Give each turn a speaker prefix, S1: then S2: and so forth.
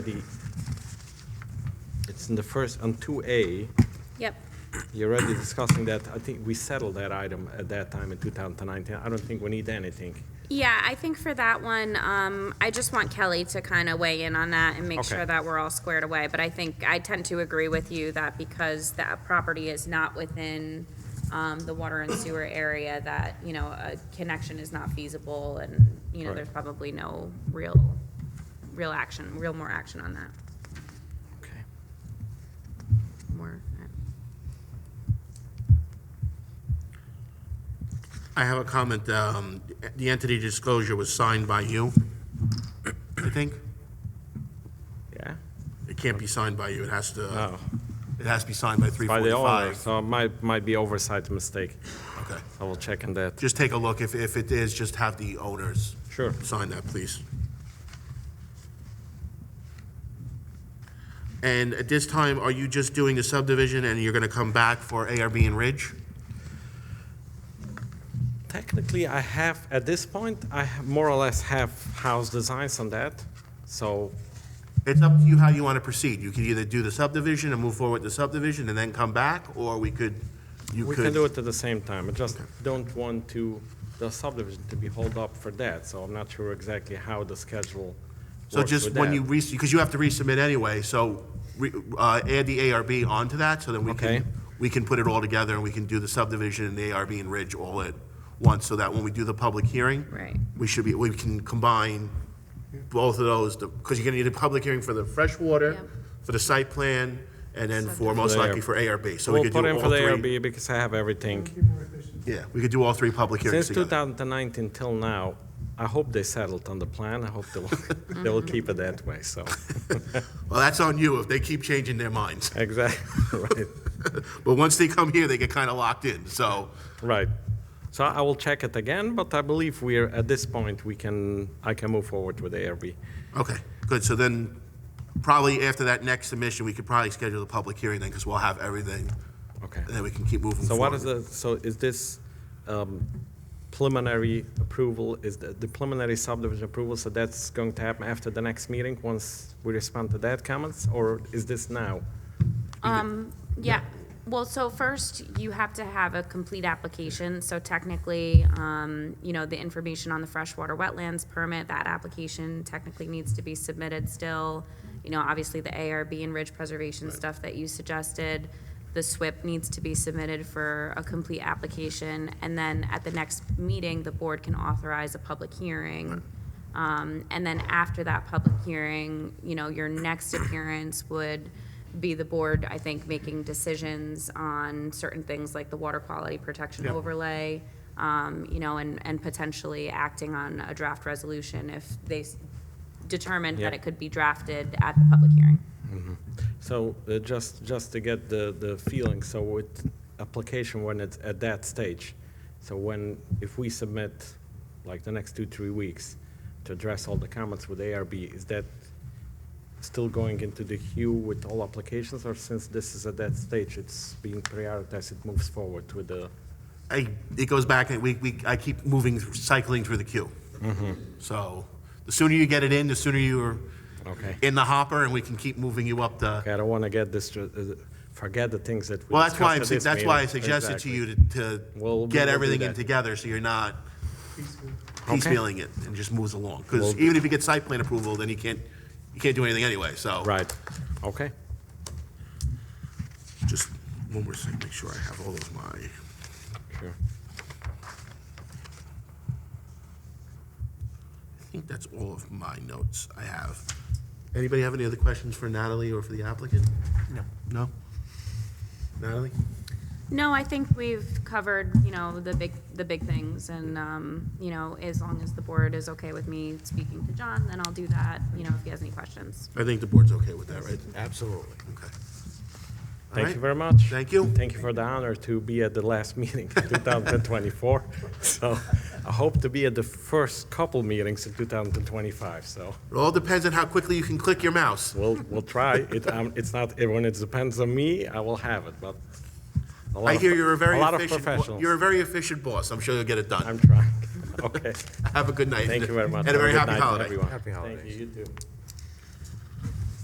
S1: The- It's in the first, on 2A,
S2: Yep,
S1: you're already discussing that, I think we settled that item at that time in 2019. I don't think we need anything.
S2: yeah, I think for that one, um, I just want Kelly to kind of weigh in on that and make
S1: Okay.
S2: sure that we're all squared away, but I think, I tend to agree with you that because that property is not within, um, the water and sewer area, that, you know, a connection is not feasible, and, you know,
S1: Right.
S2: there's probably no real, real action, real more action on that,
S1: Okay.
S2: more, uh,
S3: I have a comment. um, The entity disclosure was signed by you, I think.
S1: Yeah?
S3: It can't be signed by you. It has to,
S1: Oh,
S3: it has to be signed
S1: by
S3: by
S1: the owner,
S3: 345.
S1: so it might, might be oversight mistake.
S3: Okay.
S1: I will check on that.
S3: Just take a look. If, if it is, just have the owners.
S1: Sure.
S3: Sign that, please. And at this time, are you just doing the subdivision and you're going to come back for ARB and Ridge?
S1: Technically, I have, at this point, I ha- more or less have house designs on that, so,
S3: It's up to you how you want to proceed. You can either do the subdivision and move forward with the subdivision and then come back, or we could, you could.
S1: we can do it at the same time. I just don't want to, the subdivision to be held up for that, so I'm not sure exactly how the schedule
S3: So
S1: works
S3: just
S1: with
S3: when
S1: that.
S3: you re, because you have to resubmit anyway, so re- uh, add the ARB onto that, so then we
S1: Okay.
S3: can, we can put it all together and we can do the subdivision and the ARB and Ridge all at once, so that when we do the public hearing.
S2: Right.
S3: We should be, we can combine both of those, because you're gonna need a public hearing for the freshwater,
S2: Yep.
S3: for the site plan, and then for, most
S1: For the
S3: likely
S1: ARB.
S3: for ARB, so we
S1: We'll
S3: could do all
S1: put
S3: three.
S1: in for the ARB because I have everything.
S3: Yeah, we could do all three public hearings
S1: Since
S3: together.
S1: 2019 till now, I hope they settled on the plan. I hope they will, they will keep it that way, so.
S3: Well, that's on you if they keep changing their minds.
S1: Exactly, right,
S3: But once they come here, they get kinda locked in, so.
S1: right. So I will check it again, but I believe we're, at this point, we can, I can move forward with ARB.
S3: Okay, good, so then, probably after that next submission, we could probably schedule the public hearing then, because we'll have everything,
S1: Okay.
S3: and then we can keep moving
S1: So
S3: forward.
S1: what is the, so is this um, preliminary approval, is the the preliminary subdivision approval, so that's going to happen after the next meeting, once we respond to that comments, or is this now?
S2: yeah. Well, so first, you have to have a complete application, so technically, um, you know, the information on the freshwater wetlands permit, that application technically needs to be submitted still. You know, obviously, the ARB and ridge preservation stuff that you suggested, the SWIP needs to be submitted for a complete application, and then at the next meeting, the board can authorize a public hearing. Um, and then after that public hearing, you know, your next appearance would be the board, I think, making decisions on certain things like the water quality protection overlay, um, you know, and, and potentially acting on a draft resolution if they s- determined that
S1: Yeah.
S2: it could be drafted at the public hearing.
S1: So uh, just, just to get the, the feeling, so with application when it's at that stage, so when, if we submit like the next two, three weeks to address all the comments with ARB, is that still going into the queue with all applications or since this is at that stage, it's being prioritized, it moves forward with the,
S3: I, it goes back, and we, we, I keep moving, cycling through the queue.
S1: Mm-hmm.
S3: So, the sooner you get it in, the sooner you're
S1: Okay.
S3: in the hopper, and we can keep moving you up the,
S1: Okay, I don't want to get this, uh, forget the things that we
S3: well, that's why, I'm
S1: discussed
S3: su-
S1: at this
S3: that's why I
S1: meeting.
S3: suggested to
S1: Exactly.
S3: you to,
S1: We'll-
S3: to get
S1: we'll do
S3: everything in
S1: that.
S3: together, so you're not piecemealing it, and just moves along.
S1: We'll-
S3: Because even if you get site plan approval, then you can't, you can't do anything anyway, so.
S1: Right, okay.
S3: Just one more second, make sure I have all of my.
S1: Sure.
S3: I think that's all of my notes I have. Anybody have any other questions for Natalie or for the applicant? No. No? Natalie?
S2: No, I think we've covered, you know, the big, the big things, and, um, you know, as long as the board is okay with me speaking to John, then I'll do that, you know, if he has any questions.
S3: I think the board's okay with that, right?
S4: Absolutely.
S3: Okay. All
S1: Thank
S3: right.
S1: you very much.
S3: Thank you.
S1: Thank you for the honor to be at the last meeting, 2024. So I hope to be at the first couple meetings in 2025, so
S3: It all depends on how quickly you can click your mouse.
S1: we'll, we'll try. It, um, it's not, when it depends on me, I will have it, but a lot
S3: I
S1: of-
S3: hear you're a very
S1: lot of
S3: efficient, bo-
S1: professionals.
S3: you're a very efficient boss. I'm sure you'll get it done.
S1: I'm trying. Okay.
S3: Have a good night.
S1: Thank you very much.
S3: And a very
S1: Have
S3: happy
S1: good night,
S3: holiday.
S1: everyone.
S4: Happy
S1: Thank you,
S4: holidays.
S1: you too.